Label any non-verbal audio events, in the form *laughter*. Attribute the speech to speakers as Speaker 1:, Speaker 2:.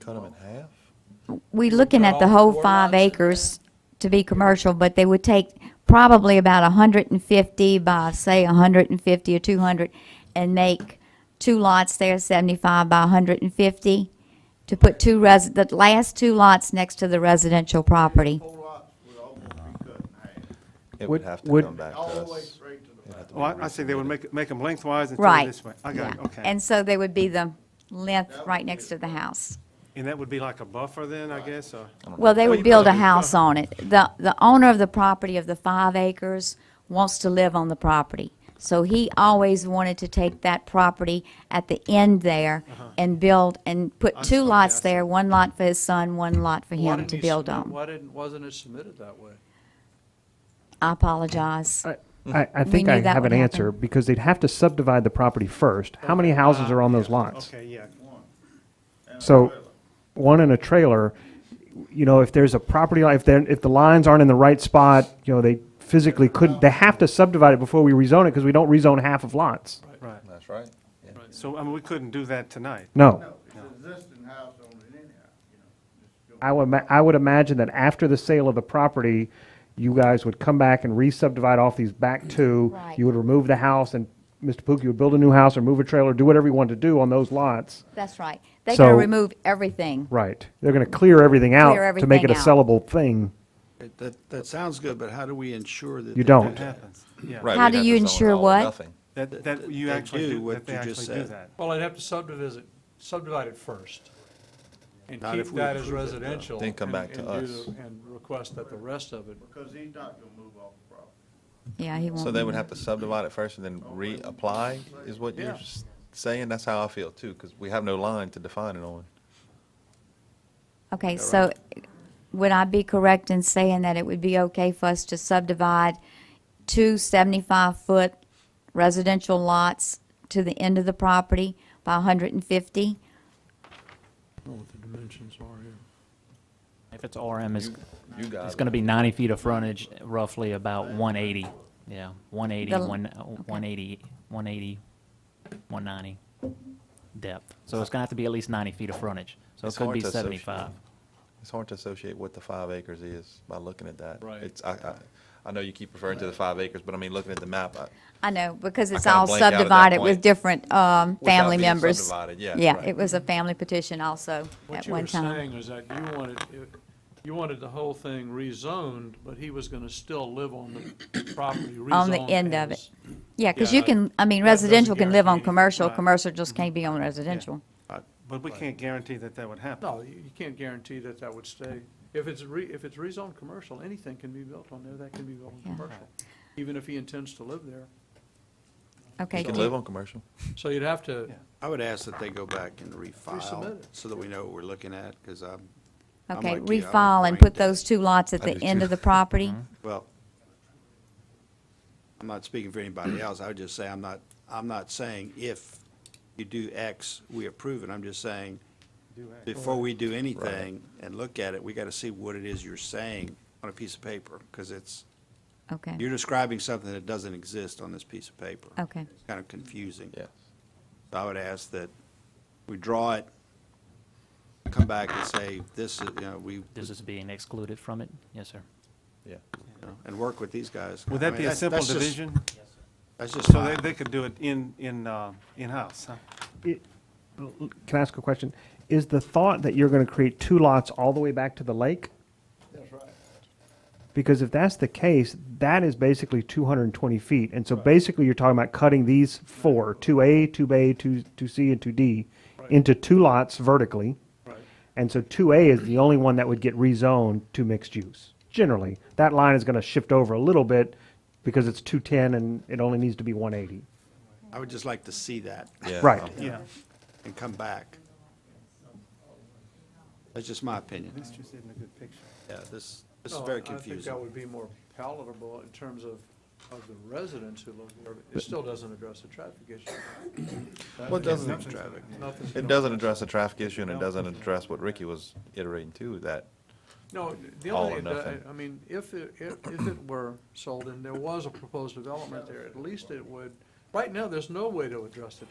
Speaker 1: cut them in half?
Speaker 2: We looking at the whole five acres to be commercial, but they would take probably about hundred and fifty by, say, hundred and fifty or two hundred, and make two lots there, seventy-five by hundred and fifty, to put two res, the last two lots next to the residential property.
Speaker 3: Whole lot would almost be cut in half,
Speaker 1: It
Speaker 4: Would-
Speaker 1: would have to
Speaker 4: would-
Speaker 1: come back to
Speaker 3: all the way
Speaker 1: us.
Speaker 3: straight to the back.
Speaker 4: Oh, I, I see, they would make, make them lengthwise and throw it
Speaker 2: Right.
Speaker 4: this way. I got it,
Speaker 2: yeah.
Speaker 4: okay.
Speaker 2: And so they would be the length right next to the house.
Speaker 4: And that would be like a buffer then, I guess, or?
Speaker 2: Well, they
Speaker 4: Oh,
Speaker 2: would
Speaker 4: you
Speaker 2: build a
Speaker 4: probably-
Speaker 2: house on it. The, the owner of the property of the five acres wants to live on the property. So he always wanted to take that property at the end there
Speaker 4: Uh-huh.
Speaker 2: and build, and put two
Speaker 4: see, I
Speaker 2: lots
Speaker 4: see.
Speaker 2: there, one lot for his son, one lot for
Speaker 5: Why
Speaker 2: him
Speaker 5: didn't
Speaker 2: to
Speaker 5: he
Speaker 2: build
Speaker 5: submit-
Speaker 2: on.
Speaker 5: Why didn't, wasn't it submitted that way?
Speaker 2: I apologize.
Speaker 6: I, I, I
Speaker 2: We
Speaker 6: think
Speaker 2: knew
Speaker 6: I
Speaker 2: that
Speaker 6: have
Speaker 2: would
Speaker 6: an answer,
Speaker 2: happen.
Speaker 6: because they'd have to subdivide the property first. How many houses are on those lots?
Speaker 4: Okay, yeah.
Speaker 6: So, one in a trailer, you know, if there's a property, line- if they're, if the lines aren't in the right spot, you know, they physically couldn't, they have to subdivide it before we rezone it, because we don't rezone half of lots.
Speaker 4: Right.
Speaker 1: That's right. yeah.
Speaker 4: So, I mean, we couldn't do that tonight.
Speaker 6: No.
Speaker 3: No, it's an existing house on it anyhow, you know.
Speaker 6: I would, ma- I would imagine that after the sale of the property, you guys would come back and re-subdivide off these back two.
Speaker 2: Right.
Speaker 6: You would remove the house, and Mr. Pookie would build a new house or move a trailer, do whatever you want to do on those lots.
Speaker 2: That's right. They're gonna
Speaker 6: So-
Speaker 2: remove everything.
Speaker 6: Right. They're going to clear everything
Speaker 2: Clear
Speaker 6: out to make it a
Speaker 2: everything out.
Speaker 6: sellable thing.
Speaker 5: That, that sounds good, but how do we ensure that?
Speaker 6: You don't.
Speaker 4: Happens, yeah.
Speaker 1: Right,
Speaker 2: How
Speaker 1: we'd
Speaker 2: do
Speaker 1: have to
Speaker 2: you
Speaker 1: zone it
Speaker 2: ensure
Speaker 1: all or
Speaker 2: what?
Speaker 1: nothing.
Speaker 4: That, that you
Speaker 5: They
Speaker 4: actually
Speaker 5: do
Speaker 4: do,
Speaker 5: what
Speaker 4: that they
Speaker 5: you just
Speaker 4: actually do
Speaker 5: said.
Speaker 4: that.
Speaker 7: Well, I'd have to subdivide, subdivide it first, and
Speaker 5: Not if
Speaker 7: keep
Speaker 5: we
Speaker 7: that as
Speaker 5: approve it, though.
Speaker 7: residential.
Speaker 1: Then come
Speaker 7: and-
Speaker 1: back to
Speaker 7: and do
Speaker 1: us.
Speaker 7: the- And request that the rest of it,
Speaker 3: Because he's not gonna move off the property.
Speaker 2: Yeah, he won't.
Speaker 1: So they would have to subdivide it first and then reapply, is what you're
Speaker 4: Yeah.
Speaker 1: s- saying? That's how I feel too, because we have no line to define it on.
Speaker 2: Okay, so would I be correct in saying that it would be okay for us to subdivide two 75-foot residential lots to the end of the property by 150?
Speaker 7: I don't know what the dimensions are here.
Speaker 8: If it's RM, it's,
Speaker 1: You uh, guys.
Speaker 8: it's gonna be ninety feet of frontage, roughly about one eighty, yeah, one eighty,
Speaker 2: The l-
Speaker 8: one, one eighty, one eighty, one ninety depth. So it's gonna have to be at least ninety feet of frontage, so it
Speaker 1: It's
Speaker 8: could
Speaker 1: hard
Speaker 8: be
Speaker 1: to associate.
Speaker 8: seventy-five.
Speaker 1: It's hard to associate what the five acres is by looking at that.
Speaker 7: Right.
Speaker 1: It's, I, I, I know you keep referring to the five acres, but I mean, looking at the map, I,
Speaker 2: I know, because
Speaker 1: I
Speaker 2: it's
Speaker 1: kinda
Speaker 2: all
Speaker 1: blanked out at that
Speaker 2: subdivided with
Speaker 1: point.
Speaker 2: different um,
Speaker 1: Without
Speaker 2: family
Speaker 1: being
Speaker 2: members.
Speaker 1: subdivided, yeah, right.
Speaker 2: it was a family petition also
Speaker 7: What
Speaker 2: at
Speaker 7: you were
Speaker 2: one time.
Speaker 7: saying was that you wanted, it- you wanted the whole thing rezoned, but he was gonna still live on the property rezoned
Speaker 2: On the end of
Speaker 7: as-
Speaker 2: Yeah, because
Speaker 7: Yeah,
Speaker 2: you can, I mean,
Speaker 7: that doesn't
Speaker 2: residential can live on
Speaker 7: guarantee-
Speaker 2: commercial,
Speaker 4: right.
Speaker 2: commercial just can't be on residential.
Speaker 4: But we can't guarantee that that would happen.
Speaker 7: No, you you can't guarantee that that would stay. If it's re, if it's rezoned commercial, anything can be built on there, that can be built on
Speaker 2: Yeah.
Speaker 7: commercial, even if he intends to live there.
Speaker 2: Okay,
Speaker 1: you can
Speaker 2: do-
Speaker 1: live on commercial.
Speaker 7: So you'd have to,
Speaker 4: Yeah.
Speaker 5: I would ask that they go back and refile,
Speaker 7: Resubmit it.
Speaker 5: so that we know what we're looking at, because I'm, I'm
Speaker 2: okay,
Speaker 5: like you, I don't
Speaker 2: refile and
Speaker 5: mind
Speaker 2: put
Speaker 5: that.
Speaker 2: those two lots at
Speaker 1: I
Speaker 2: the
Speaker 1: do
Speaker 2: end
Speaker 1: too. Mm-hmm.
Speaker 2: of the
Speaker 1: *laughs*
Speaker 2: property?
Speaker 5: well, I'm not speaking for anybody else, I would just say, I'm not, I'm not saying if you do X, we approve it, I'm just saying, before we do anything and look at it, we gotta see what it is you're saying on a piece of paper, because it's,
Speaker 2: Okay.
Speaker 5: you're describing something that doesn't exist on this piece of paper.
Speaker 2: Okay.
Speaker 5: It's kind of confusing.
Speaker 1: Yes.
Speaker 5: I would ask that we draw it, come back and say, this, is you know, we, you
Speaker 8: This is being excluded from it, yes, sir.
Speaker 1: Yeah.
Speaker 5: know, and work with these guys.
Speaker 4: Would
Speaker 5: I
Speaker 4: that
Speaker 5: mean,
Speaker 4: be a
Speaker 5: that's-
Speaker 4: simple
Speaker 5: that's just-
Speaker 4: division?
Speaker 5: That's just
Speaker 4: So they,
Speaker 5: fine.
Speaker 4: they could do it in, in, uh, in-house, huh?
Speaker 6: Can I ask a question? Is the thought that you're going to create two lots all the way back to the lake?
Speaker 3: That's right.
Speaker 6: Because if that's the case, that is basically 220 feet. And so basically, you're talking about cutting these four, 2A, 2B, 2, 2C, and 2D, into two lots vertically.
Speaker 7: right.
Speaker 6: And so 2A is the only one that would get rezoned to mixed use. Generally, that line is going to shift over a little bit because it's 210 and it only needs to be 180.
Speaker 5: I would just like to see that
Speaker 1: Yeah.
Speaker 6: Right.
Speaker 4: Yeah.
Speaker 5: and come back. That's just my opinion.
Speaker 4: This just isn't a good picture.
Speaker 5: Yeah, this, this is
Speaker 7: No,
Speaker 5: very
Speaker 7: Oh, I- I think that
Speaker 5: confusing.
Speaker 7: would be more palatable in terms of, of the residents who live there, but it still doesn't address the traffic issue.
Speaker 1: What doesn't,
Speaker 5: Traffic.
Speaker 7: Nothing's
Speaker 1: it
Speaker 7: gonna-
Speaker 1: doesn't address the traffic issue and it doesn't address what Ricky was iterating too, that
Speaker 7: No, the
Speaker 1: all
Speaker 7: only,
Speaker 1: or
Speaker 7: thing that-
Speaker 1: nothing.
Speaker 7: I mean, if, it- if, if it were sold and there was a proposed development there, at least it would, right now, there's no way to address the